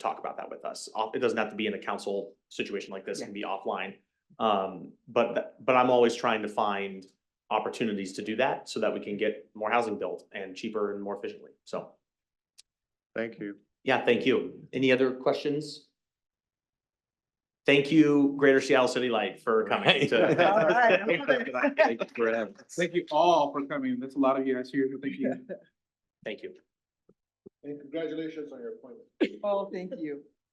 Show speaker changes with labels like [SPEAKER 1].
[SPEAKER 1] talk about that with us. Off- It doesn't have to be in a council situation like this, it can be offline. Um, but, th- but I'm always trying to find opportunities to do that so that we can get more housing built and cheaper and more efficiently. So,
[SPEAKER 2] Thank you.
[SPEAKER 1] yeah, thank you. Any other questions? Thank you, Greater Seattle City Light, for coming to.
[SPEAKER 3] Thank you all for coming. That's a lot of you guys here. Thank you.
[SPEAKER 1] Thank you.
[SPEAKER 3] And congratulations on your appointment.
[SPEAKER 4] Oh, thank you.